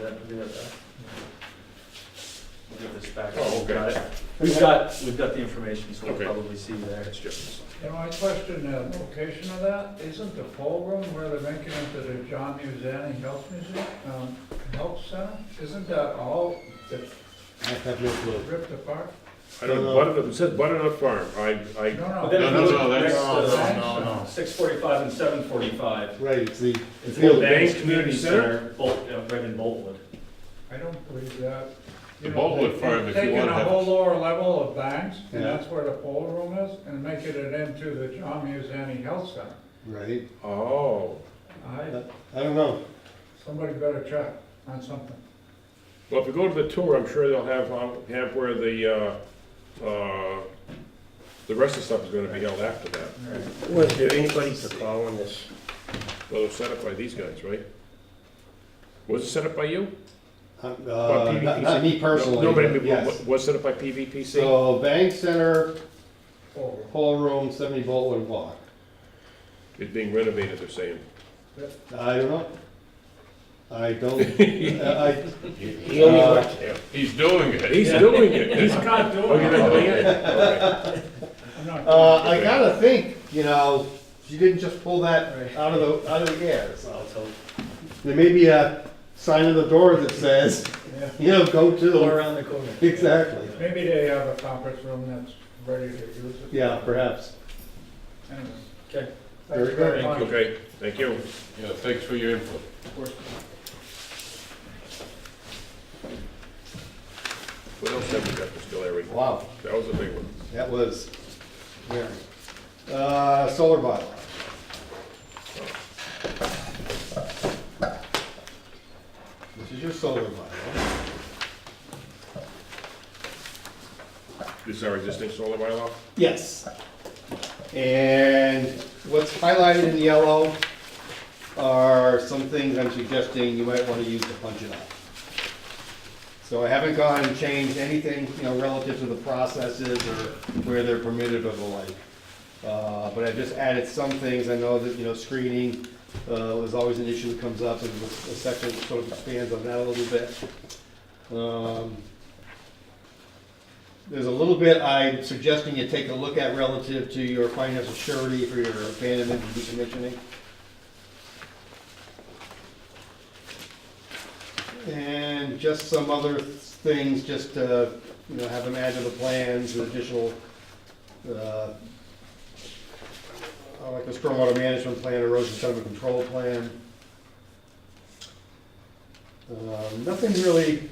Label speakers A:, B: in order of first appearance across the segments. A: that, do that back. We'll give this back.
B: Oh,
A: We've got
B: okay.
A: it. We've got, we've got the information, so we'll
B: Okay.
A: probably see you there.
B: That's just,
C: And my question, the location of that, isn't the poll room where they're making into the John Musani Health Museum, um, Health Center? Isn't that all that
D: I have no clue.
C: ripped apart?
B: I don't,
D: No, no.
B: Butternut, it said Butternut Farm, I, I,
C: No,
A: But
C: no.
A: then
E: No,
A: if
E: no,
A: you
E: no,
A: look
E: that's-
A: next to the-
C: no,
D: no.
A: 645 and 745.
D: Right, it's the,
A: It's
D: Field
A: Old Banks
B: Bank
A: Community
B: Community
A: Center, Bolt- uh, right in Boltwood.
C: I don't believe that. You
E: The
C: know,
E: Baldwood
C: they-
E: Farm,
C: they've
E: if you wanna
C: Taken a
E: have-
C: whole lower level of banks, and
D: Yeah.
C: that's where the poll room is, and making it into the John Musani Health Center.
D: right,
B: oh.
C: I,
D: I don't know.
C: somebody better check on something.
B: Well, if we go to the tour, I'm sure they'll have, um, have where the, uh, uh, the rest of the stuff is gonna be held after that.
F: Was there anybody to call on this?
B: Well, it was set up by these guys, right? Was it set up by you?
D: Uh,
B: Or
D: uh, Not
B: PVPC?
D: not me personally.
B: No,
D: but
B: Nobody,
D: yes.
B: was, was set up by PVPC?
D: So Bank Center,
C: Poll room.
D: poll room, seventy Boltwood block.
B: It's being renovated, they're saying.
D: I don't know. I don't, I,
F: He only
D: Uh,
F: worked there.
E: He's doing it.
B: He's doing it. He's
A: not
B: Oh, you're not doing it? Okay.
C: I'm not-
D: uh, I gotta think, you know, she didn't just pull that out of the, out of the air, so. There may be a sign on the door that says,
C: yeah.
D: you know, go
F: Go
D: to,
F: around the corner.
D: exactly.
C: Maybe they have a conference room that's ready to use it.
D: Yeah, perhaps.
C: Anyway.
A: Okay.
C: Thanks
D: Very good.
C: very much.
B: Okay, thank you.
E: Yeah, thanks for your input.
B: What else have we got to still, Eric?
D: Wow.
B: That was a big one.
D: That was, yeah. Uh, solar bylaw. This is your solar bylaw.
B: This is our existing solar bylaw?
D: Yes. And what's highlighted in yellow are some things I'm suggesting you might want to use to punch it up. So I haven't gone and changed anything, you know, relative to the processes or where they're permitted or the like. Uh, But I've just added some things, I know that, you know, screening uh, was always an issue that comes up, and the section sort of expands on that a little bit. Um, There's a little bit I'm suggesting you take a look at relative to your financial surety for your abandonment and decommissioning. And just some other things, just uh, to, you know, have them add to the plans, and additional, uh, uh, like a stormwater management plan, erosion sediment control plan. Um, Nothing really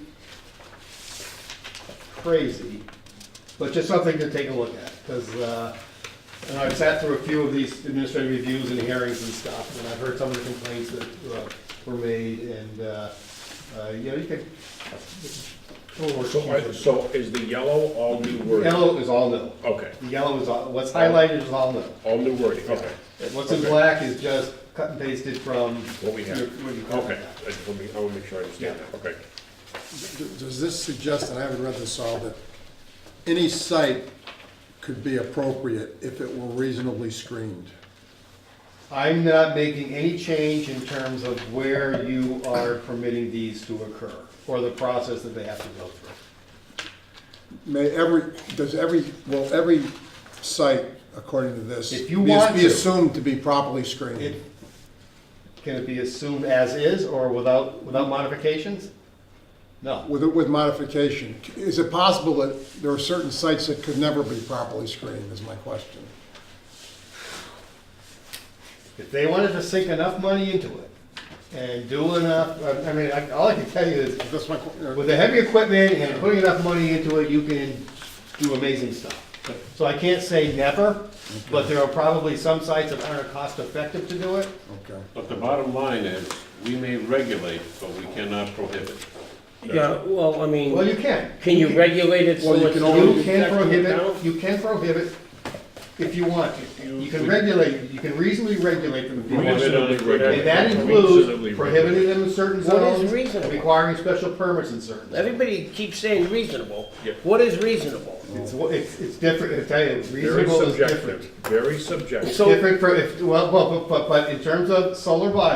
D: crazy, but just something to take a look at, because and I've sat through a few of these administrative reviews and hearings and stuff, and I've heard some of the complaints that uh, were made, and, uh, uh, you know, you could.
B: So, I- so is the yellow all new wording?
D: Yellow is all no.
B: Okay,
D: The yellow is all, what's highlighted is all no.
B: all new wording, okay.
D: What's in
B: Okay.
D: black is just cut and pasted from.
B: What we have.
D: your- What you call
B: Okay,
D: it.
B: I just want to, I want to make sure I understand that, okay.
G: D- Does this suggest, and I haven't read this all, that any site could be appropriate if it were reasonably screened?
D: I'm not making any change in terms of where you are permitting these to occur, or the process that they have to go through.
G: May every, does every, will every site, according to this,
D: If you
G: be-
D: want
G: be
D: to.
G: assumed to be properly screened?
D: It, can it be assumed as is or without, without modifications? No.
G: With, with modification, is it possible that there are certain sites that could never be properly screened, is my question?
D: If they wanted to sink enough money into it and do enough, I I mean, I- all I can tell you is,
G: That's my, que- uh,
D: with the heavy equipment and putting enough money into it, you can do amazing stuff. So I can't say never, but there are probably some sites that aren't cost effective to do it.
G: okay.
E: But the bottom line is, we may regulate, but we cannot prohibit.
F: Yeah, well, I mean,
D: Well, you can.
F: can you regulate it so
G: Well, you
F: it's?
G: can
F: not
D: You can
F: affecting the
D: prohibit,
F: town?
D: you can prohibit if you want to. You can regulate, you can reasonably regulate them if you want to.
B: Reasonably regulate.
D: And that
B: Reasonably
D: includes
B: regulate.
D: prohibiting them in certain
F: What is
D: zones,
F: reasonable?
D: requiring special permits in certain zones.
F: Everybody keeps saying reasonable.
B: Yeah.
F: What is reasonable?
D: It's, it's, it's different, I tell you,
B: Very
D: reasonable is different.
B: subjective, very subjective.
F: So-
D: Different for, if, well, well, but, but, but in terms of solar bylaw,